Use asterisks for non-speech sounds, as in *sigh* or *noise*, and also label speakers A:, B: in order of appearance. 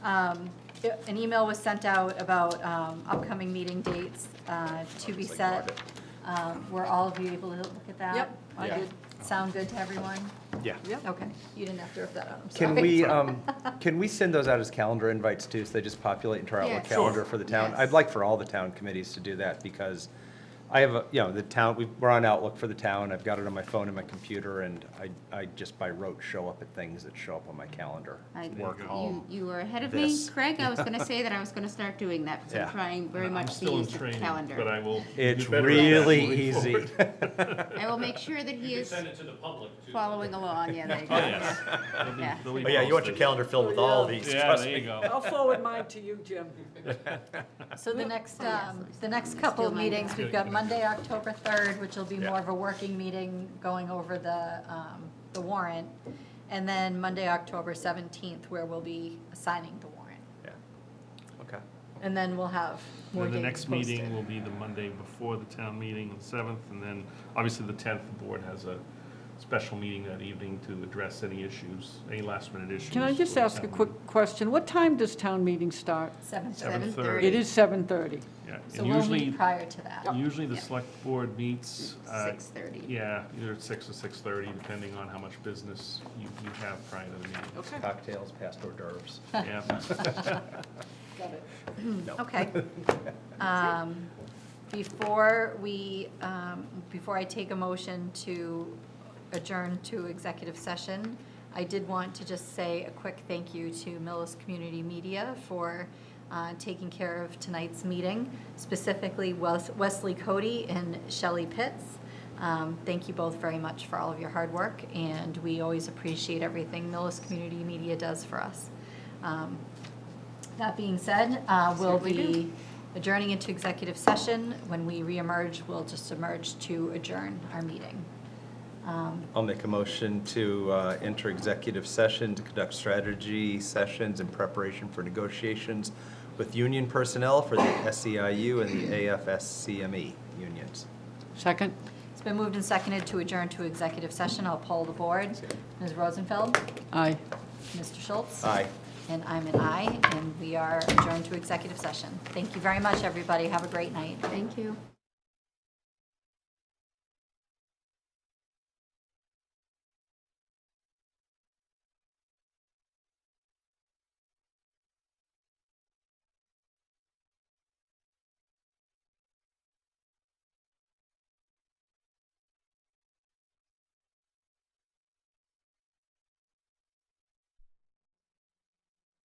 A: Um, it- An email was sent out about um, upcoming meeting dates uh, to be
B: It's like
A: set.
B: Margaret.
A: Um, Were all of you able to look at that?
C: Yep,
B: I Yeah. did.
A: Sound good to everyone?
D: Yeah.
C: Yep.
A: Okay, you didn't have to rip that out, I'm sorry.
D: Can we, um, can we send those out as calendar invites too, so they just populate into our Outlook
C: Yes.
D: calendar
C: Sure.
D: for the town?
C: Yes.
D: I'd like for all the town committees to do that, because I have, a you know, the town, we- we're on Outlook for the town, I've got it on my phone and my computer, and I, I just by rote show up at things that show up on my calendar.
E: I-
D: Work
E: you-
D: home.
E: You were ahead of me,
D: This.
E: Craig. I was going to say that I was going to start doing that, because
D: Yeah.
E: I'm trying very
F: I'm
E: much to
F: still in
E: use the
F: training, But I
E: calendar.
F: will.
D: It's
F: do better at that
D: really
F: moving
D: easy.
F: forward.
E: I will make sure
F: *laughs*
E: that he
G: You can
E: is
G: send it to the public too.
E: following along, yeah, there you
F: Oh,
E: go.
F: yes. They'll be-
E: Yeah.
F: they'll be
B: Oh, yeah, you want your
F: posted.
B: calendar filled with all these,
F: Yeah,
B: trust
F: there you
B: me.
F: go.
C: I'll forward mine to you, Jim.
A: So the next,
E: Oh, yes,
A: um,
E: let me
A: the
E: see.
A: next couple of
E: Steal my
A: meetings, we've got Monday, October 3rd, which will be
B: Yeah.
A: more of a working meeting, going over the, um, the warrant. And then Monday, October 17th, where we'll be signing the warrant.
D: *laughs* Yeah. Okay.
A: And then we'll have more
F: Then the
A: dates
F: next meeting will be the Monday before the town meeting, the seventh, and then, obviously, the tenth, the board has a special meeting that evening to address any issues, any last minute issues.
C: Can I just
F: for the
C: ask a
F: town
C: quick
F: meeting.
C: question? What time does town meeting start?
A: Seventh.
F: Seven
E: 7:30.
F: thirty.
C: It is 7:30.
F: Yeah,
A: So
F: and
A: we'll
F: usually,
A: meet oh, prior to that.
F: usually the
E: Yeah.
F: select board meets, uh,
E: 6:30.
F: yeah, either at six or six-thirty, depending on how much business you, you have prior to the meeting.
C: Okay.
D: Cocktails, past hors d'oeuvres.
F: Yeah.
C: Got it.
A: Okay. Um, Before we, um, before I take a motion to adjourn to executive session, I did want to just say a quick thank you to Millis Community Media for uh, taking care of tonight's meeting, specifically Wes- Wesley Cody and Shelley Pitts. Um, Thank you both very much for all of your hard work, and we always appreciate everything Millis Community Media does for us. Um, that being said, uh, we'll
E: Certainly do.
A: be adjourning into executive session. When we reemerge, we'll just emerge to adjourn our meeting. Um,
D: I'll make a motion to uh, enter executive session to conduct strategy sessions in preparation for negotiations with union personnel for the SEIU and the AFSCME E unions.
C: Second?
A: It's been moved and seconded to adjourn to executive session. I'll poll the board. Ms. Rosenfeld?
C: Aye.
A: Mr. Schultz?
D: Aye.
A: And I'm an aye, and we are adjourned to executive session. Thank you very much, everybody. Have a great night.
E: Thank you.